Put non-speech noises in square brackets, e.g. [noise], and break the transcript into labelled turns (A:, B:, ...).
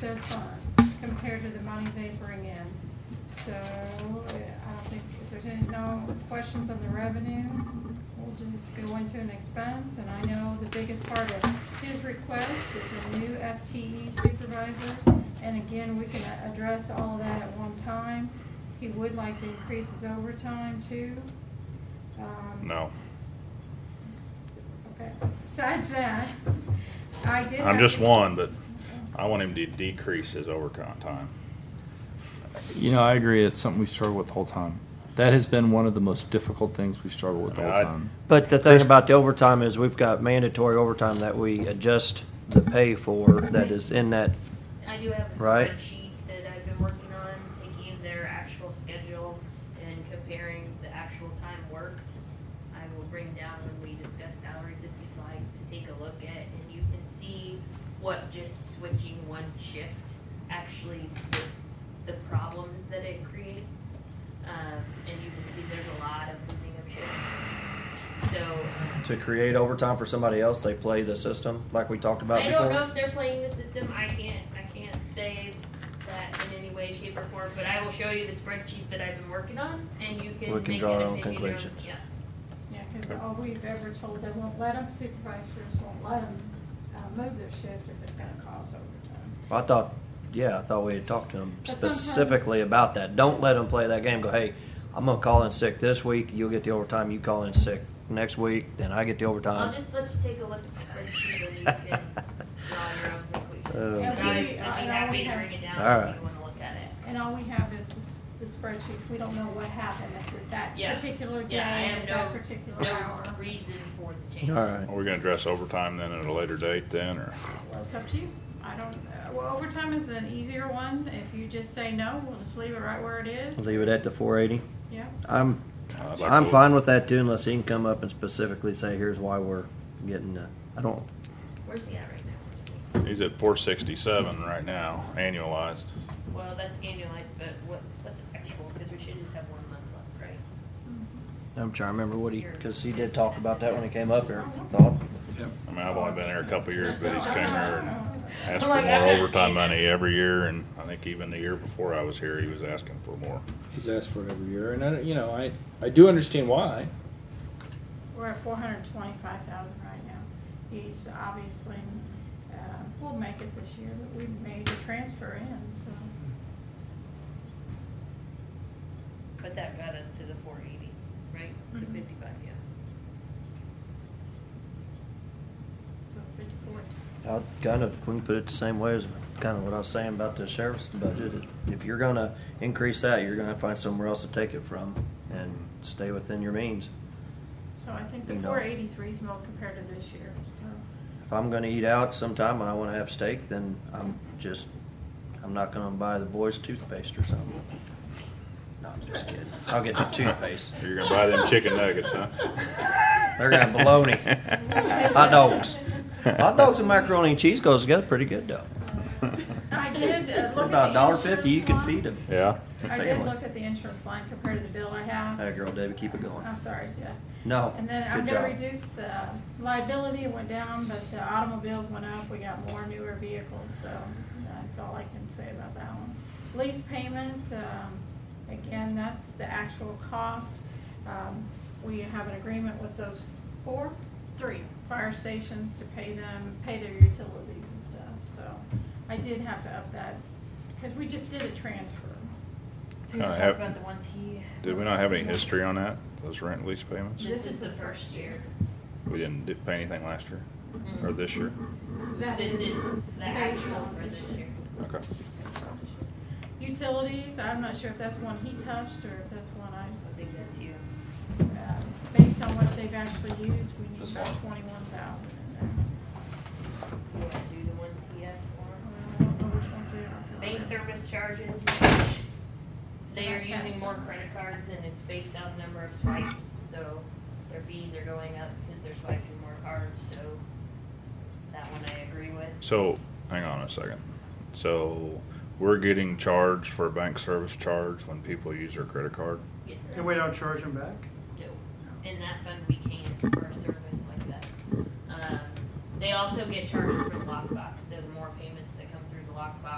A: so far compared to the money they bring in. So uh, I don't think if there's any, no questions on the revenue, we'll just go into an expense. And I know the biggest part of his request is a new FTE supervisor. And again, we can a- address all that at one time. He would like to increase his overtime too. Um,
B: No,
A: Okay, besides that, I did.
B: I'm
A: have-
B: just one, but I want him to decrease his overcon- time.
C: You know, I agree. It's something we've struggled with the whole time. That has been one of the most difficult things we've struggled with the whole
B: I mean, I-
C: time.
D: But the thing about the overtime is we've got mandatory overtime that we adjust the pay for that is in that,
E: I do have a
D: Right.
E: spreadsheet that I've been working on, taking their actual schedule and comparing the actual time worked. I will bring down when we discuss salaries if you'd like to take a look at, and you can see what just switching one shift actually, the- the problems that it creates. Um, and you can see there's a lot of moving of shifts. So. um,
D: to create overtime for somebody else, they play the system like we talked about
E: I
D: before.
E: don't know if they're playing the system. I can't. I can't say that in any way, shape, or form. But I will show you the spreadsheet that I've been working on, and you can.
D: We can
E: make
D: draw
E: an
D: our own
E: opinion
D: conclusions.
E: Yeah.
A: Yeah, because all we've ever told, they won't let them, supervisors won't let them move their shift if it's gonna cause overtime.
D: I thought, yeah, I thought we had talked to them
A: But sometimes-
D: specifically about that. Don't let them play that game. Go, hey, I'm gonna call in sick this week. You'll get the overtime. You call in sick next week, then I get the
E: I'll
D: overtime.
E: just let you take a look at the spreadsheet, and
D: [laughs]
E: you can draw your own conclusions.
D: Oh.
E: But I- I'd be
A: Yeah, we- I- I
E: happy
A: would
E: to
A: have-
E: bring it down
D: Alright.
E: if you want to look at it.
A: And all we have is the s- the spreadsheets, we don't know what happened at that
E: Yeah.
A: particular day,
E: Yeah, I
A: at
E: have
A: that
E: no
A: particular hour.
E: no reason for the change.
D: All right.
B: Are we gonna address overtime then at a later date then, or?
A: Well, it's up to you, I don't, uh, well, overtime is an easier one, if you just say no, we'll just leave it right where it is,
D: Leave it at the 480.
A: yeah.
D: I'm,
B: I'd like
D: I'm
B: to-
D: fine with that too, unless he can come up and specifically say, here's why we're getting. The, I don't.
E: Where's he at right now?
B: He's at four sixty-seven right now, annualized.
E: Well, that's annualized, but what what's actual? Because we should just have one month left, right?
D: I'm trying to remember what he, because he did talk about that when he came up here. I Thought.
B: I mean, I've only been here a couple of years,
A: [laughs]
B: but he's came here and asked for
E: Oh
B: more
E: my God.
B: overtime money every year, and I think even the year before I was here, he was asking for more.
F: He's asked for it every year, and I, don't- you know, I, I do understand why.
A: We're at four hundred twenty-five thousand right now. He's obviously, uh, we'll make it this year, but we made a transfer in, so.
E: But that got us to the four eighty, right? The
A: Mhm.
E: fifty-five, yeah.
A: so fifty-four t-
D: I kind of, we can put it the same way as kind of what I was saying about the sheriff's budget. If you're gonna increase that, you're gonna have to find somewhere else to take it from and stay within your means.
A: So I think the
D: You know.
A: four eighty's reasonable compared to this year,
D: [laughs]
A: so.
D: If I'm gonna eat out sometime and I wanna have steak, then I'm just, I'm not gonna buy the boys toothpaste or something. No, I'm just kidding. I'll get the toothpaste.
B: You're gonna buy them chicken nuggets, huh?
D: [laughs] They're gonna baloney. Hot dogs. Hot dogs and macaroni and cheese goes together pretty good though.
A: Uh, I did uh, look at the insurance
D: About a dollar fifty, you can feed them.
B: Yeah?
A: I did look at the insurance line compared to the bill I have.
D: That girl, Debbie, keep it going.
A: I'm sorry, Jeff.
D: No.
A: And then I'm
D: good
A: gonna
D: job.
A: reduce the liability, it went down, but the automobiles went up, we got more newer vehicles, so that's all I can say about that one. Lease payment, um, again, that's the actual cost. Um, we have an agreement with those four, three fire stations to pay them, pay their utilities and stuff, so I did have to up that, because we just did a transfer.
E: We
B: Uh,
E: talked
B: have-
E: about the ones he.
B: Did we not have any history on that, those rent lease payments?
E: This is the first year.
B: We didn't di- pay anything last year,
A: Mm-hmm.
B: or this year?
A: That
E: This
A: is
E: is the
A: based
E: actual
A: on
E: for
A: this
E: this
A: year.
E: year.
B: Okay.
A: Utilities, I'm not sure if that's one he touched or if that's one I
E: I think that's you.
A: Uh, Based on what they've actually used, we need
D: This
A: about twenty-one thousand in there.
E: You wanna do the ones he asked for?
A: I don't know which ones they
E: Bank
A: are.
E: service charges, they are using more credit cards and it's based on the number of swipes, so their fees are going up because they're swiping more cards, so that one I agree with.
B: So, hang on a second. So, we're getting charged for a bank service charge when people use their credit card?
E: Yes,
G: And we don't charge them back?
E: no. In that fund, we can for a service like that. Um, they also get charges for the lockbox, so the more payments that come through the lockbox,